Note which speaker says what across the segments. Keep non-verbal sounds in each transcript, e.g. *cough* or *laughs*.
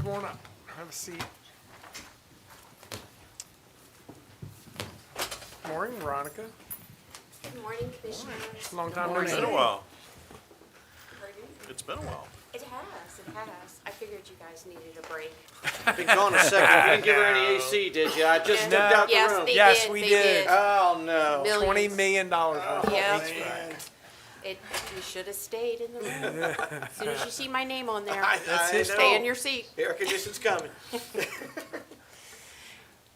Speaker 1: Come on up, have a seat. Morning, Veronica.
Speaker 2: Good morning, Commissioners.
Speaker 1: Long time no
Speaker 3: It's been a
Speaker 1: see.
Speaker 3: while.
Speaker 2: Pardon?
Speaker 3: It's been a while.
Speaker 2: It has, it has. I figured you guys needed a break.
Speaker 4: Been gone a second. You didn't give her any AC, did you? I just stepped
Speaker 1: No.
Speaker 4: out the
Speaker 2: Yes,
Speaker 4: room.
Speaker 2: they
Speaker 1: Yes,
Speaker 2: did,
Speaker 1: we
Speaker 2: they
Speaker 1: did.
Speaker 4: Oh no. Oh,
Speaker 2: Millions. Oh.
Speaker 1: Twenty million dollars. worth.
Speaker 2: Yeah. It, you should have stayed in the room. As soon as you see my name on there,
Speaker 4: *laughs* I, I know.
Speaker 2: stay in your seat.
Speaker 4: Air conditioning's coming.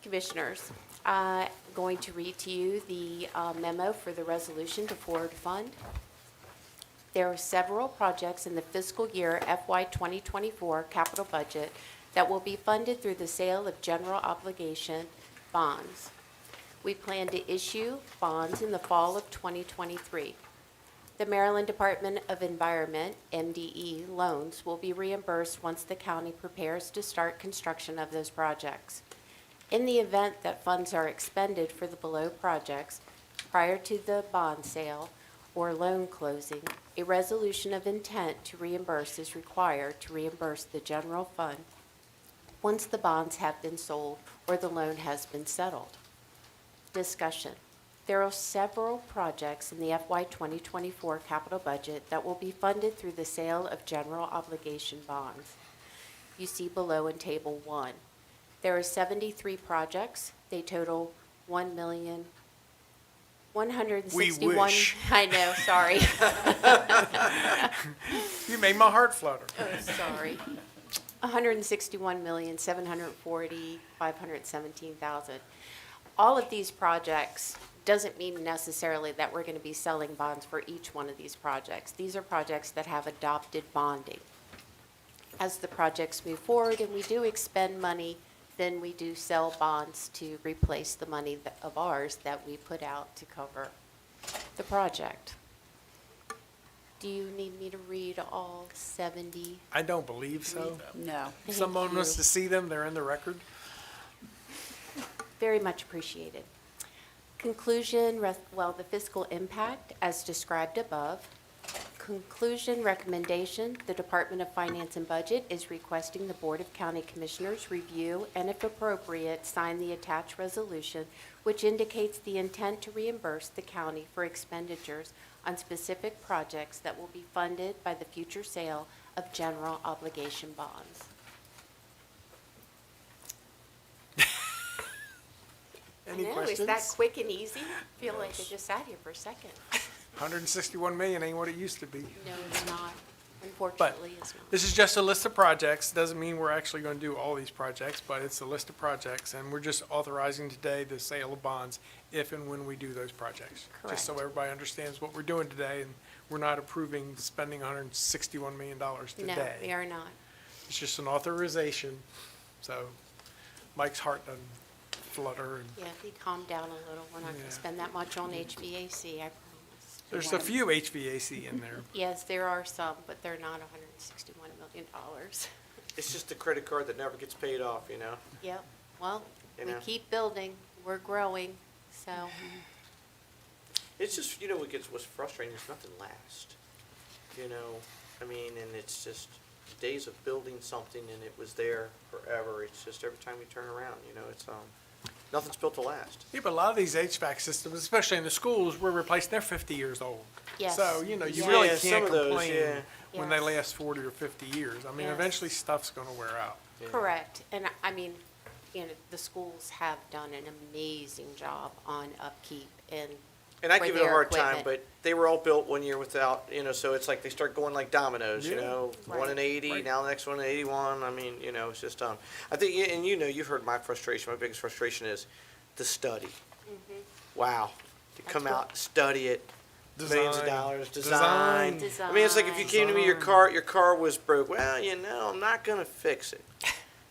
Speaker 2: Commissioners, I'm going to read to you the uh, memo for the resolution to forward fund. There are several projects in the fiscal year FY 2024 capital budget that will be funded through the sale of general obligation bonds. We plan to issue bonds in the fall of 2023. The Maryland Department of Environment, MDE, loans will be reimbursed once the county prepares to start construction of those projects. In the event that funds are expended for the below projects prior to the bond sale or loan closing, a resolution of intent to reimburse is required to reimburse the general fund once the bonds have been sold or the loan has been settled. Discussion. There are several projects in the FY 2024 capital budget that will be funded through the sale of general obligation bonds. You see below in Table 1. There are 73 projects. They total 1 million, 161.
Speaker 1: We wish.
Speaker 2: *laughs* I know, sorry.
Speaker 1: You made my heart flutter.
Speaker 2: Oh, sorry. hundred and sixty-one million, seven hundred and forty, five hundred and seventeen thousand. All of these projects doesn't mean necessarily that we're gonna be selling bonds for each one of these projects. These are projects that have adopted bonding. As the projects move forward and we do expend money, then we do sell bonds to replace the money that- of ours that we put out to cover the project. Do you need me to read all seventy?
Speaker 1: I don't believe so.
Speaker 5: No.
Speaker 1: Someone
Speaker 2: Thank
Speaker 1: wants
Speaker 2: you.
Speaker 1: to see them, they're in the record.
Speaker 2: Very much appreciated. Conclusion, res- well, the fiscal impact as described above. Conclusion, recommendation, the Department of Finance and Budget is requesting the Board of County Commissioners review and if appropriate, sign the attached resolution, which indicates the intent to reimburse the county for expenditures on specific projects that will be funded by the future sale of general obligation bonds.
Speaker 1: Any
Speaker 2: I know, is that
Speaker 1: questions?
Speaker 2: quick and easy? I Feel like I just sat here for a second.
Speaker 1: Hundred and sixty-one million ain't what it used to be.
Speaker 2: No, it's not. Unfortunately, it's not.
Speaker 1: This is just a list of projects, doesn't mean we're actually gonna do all these projects, but it's a list of projects, and we're just authorizing today the sale of bonds if and when we do those projects. Just so
Speaker 2: Correct.
Speaker 1: everybody understands what we're doing today, and we're not approving spending hundred and sixty-one million dollars
Speaker 2: No, we
Speaker 1: today.
Speaker 2: are not.
Speaker 1: It's just an authorization, so Mike's heart doesn't flutter, and
Speaker 2: Yeah, if you calm down a little, we're not
Speaker 1: Yeah.
Speaker 2: gonna spend that much on HVAC, I promise.
Speaker 1: there's a few HVAC in there.
Speaker 2: Yes, there are some, but they're not hundred and sixty-one million dollars. *laughs*
Speaker 4: It's just a credit card that never gets paid off, you know.
Speaker 2: Yep, well,
Speaker 4: You
Speaker 2: we
Speaker 4: know.
Speaker 2: keep building, we're growing, so,
Speaker 4: It's just you know what gets what's frustrating is nothing lasts. You know, I mean, and it's just the days of building something and it was there forever. It's just every time we turn around, you know, it's um, nothing's built to last.
Speaker 1: Yeah, but a lot of these HVAC systems, especially in the schools, we're replacing, they're fifty years old.
Speaker 2: Yes.
Speaker 1: So, you know, you
Speaker 2: Yeah.
Speaker 1: really
Speaker 4: Yeah, some
Speaker 1: can't
Speaker 4: of those,
Speaker 1: complain
Speaker 4: yeah.
Speaker 1: when they
Speaker 2: Yes.
Speaker 1: last forty or fifty years. I mean,
Speaker 2: Yes.
Speaker 1: eventually stuff's gonna wear out.
Speaker 4: Yeah.
Speaker 2: correct. And I- I mean, you know, the schools have done an amazing job on upkeep and
Speaker 4: And I
Speaker 2: for
Speaker 4: give it a
Speaker 2: their
Speaker 4: hard time,
Speaker 2: equipment.
Speaker 4: but they were all built one year without, you know, so it's like they start going like dominoes, you
Speaker 1: Yeah.
Speaker 4: know, one in
Speaker 2: Right.
Speaker 4: 80,
Speaker 1: Right.
Speaker 4: now the next one in 81. I mean, you know, it's just, um, I think, and you know, you've heard my frustration. My biggest frustration is the study.
Speaker 2: Mm-hmm.
Speaker 4: Wow. To come
Speaker 2: what-
Speaker 4: out, study it, millions of
Speaker 1: Design.
Speaker 4: dollars,
Speaker 1: Design.
Speaker 4: design. I mean, it's like if you came to me, your
Speaker 1: Design.
Speaker 4: car, your car was broke. Well, you know, I'm not going to
Speaker 2: *laughs*
Speaker 4: fix it,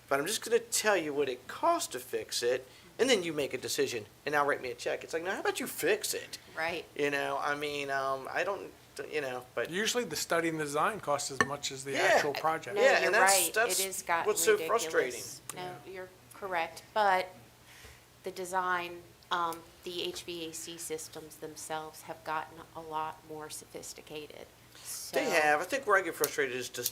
Speaker 4: but I'm just going to tell you what it costs to fix it. And then you make a decision, and now write me a check. It's like, no, how about you fix it?
Speaker 2: right?
Speaker 4: You know, I mean, um, I don't, you know, but
Speaker 1: Usually the study and the design costs as much as the
Speaker 4: Yeah.
Speaker 1: actual
Speaker 2: No,
Speaker 1: project.
Speaker 4: Yeah, and
Speaker 2: you're
Speaker 4: that's-
Speaker 2: right.
Speaker 4: that's
Speaker 2: It has gotten
Speaker 4: what's so
Speaker 2: ridiculous.
Speaker 4: frustrating.
Speaker 2: No, you're correct, but the design, um, the HVAC systems themselves have gotten a lot more sophisticated.
Speaker 4: they
Speaker 2: So-
Speaker 4: have. I think where I get frustrated is just